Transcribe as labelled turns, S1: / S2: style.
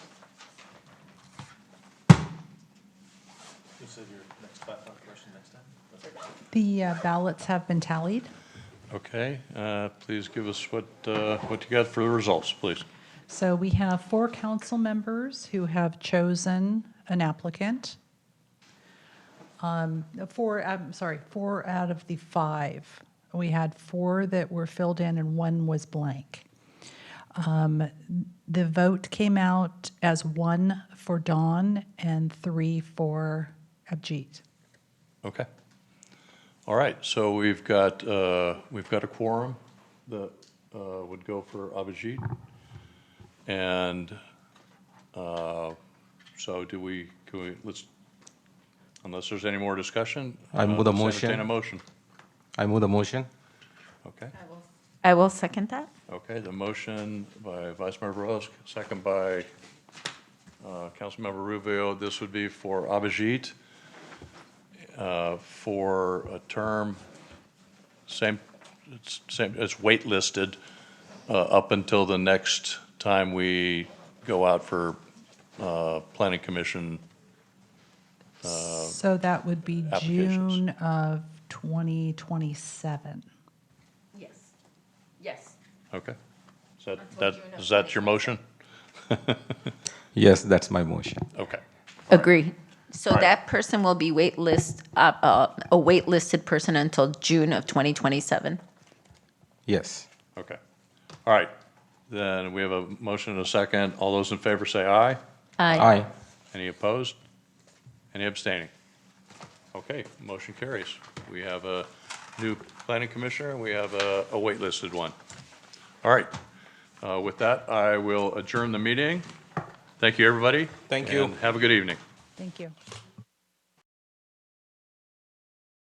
S1: said your next platform question next time.
S2: The uh, ballots have been tallied.
S3: Okay, uh, please give us what, uh, what you got for the results, please.
S2: So we have four council members who have chosen an applicant. Um, Four, I'm sorry, four out of the five. We had four that were filled in and one was blank. Um, The vote came out as one for Dawn and three for Abjeet.
S3: Okay. All right, so we've got, uh, we've got a quorum that uh, would go for Abhijit. And uh, so do we, can we, let's, unless there's any more discussion?
S4: I
S3: uh,
S4: move the
S3: let's entertain
S4: motion.
S3: a motion.
S4: I move the motion.
S3: Okay,
S5: I will second that.
S3: okay, the motion by Vice Mayor Verosk, second by uh, Councilmember Rubio. This would be for Abhijit uh, for a term, same, it's same, it's waitlisted uh, up until the next time we go out for uh, planning commission.
S2: So that would be
S3: applications.
S2: June of 2027.
S6: Yes. Yes.
S3: Okay? Is that, that, is that your motion?
S4: Yes, that's my motion.
S3: Okay,
S6: Agree. So
S3: Right.
S6: that person will be waitlist, uh, uh, a waitlisted person until June of 2027.
S4: Yes.
S3: okay. All right, then we have a motion and a second. All those in favor say aye.
S6: Aye.
S4: Aye.
S3: Any opposed? Any abstaining? Okay, motion carries. We have a new planning commissioner, we have a, a waitlisted one. All right, Uh, with that, I will adjourn the meeting. Thank you, everybody.
S4: Thank you.
S3: and Have a good evening.
S2: Thank you.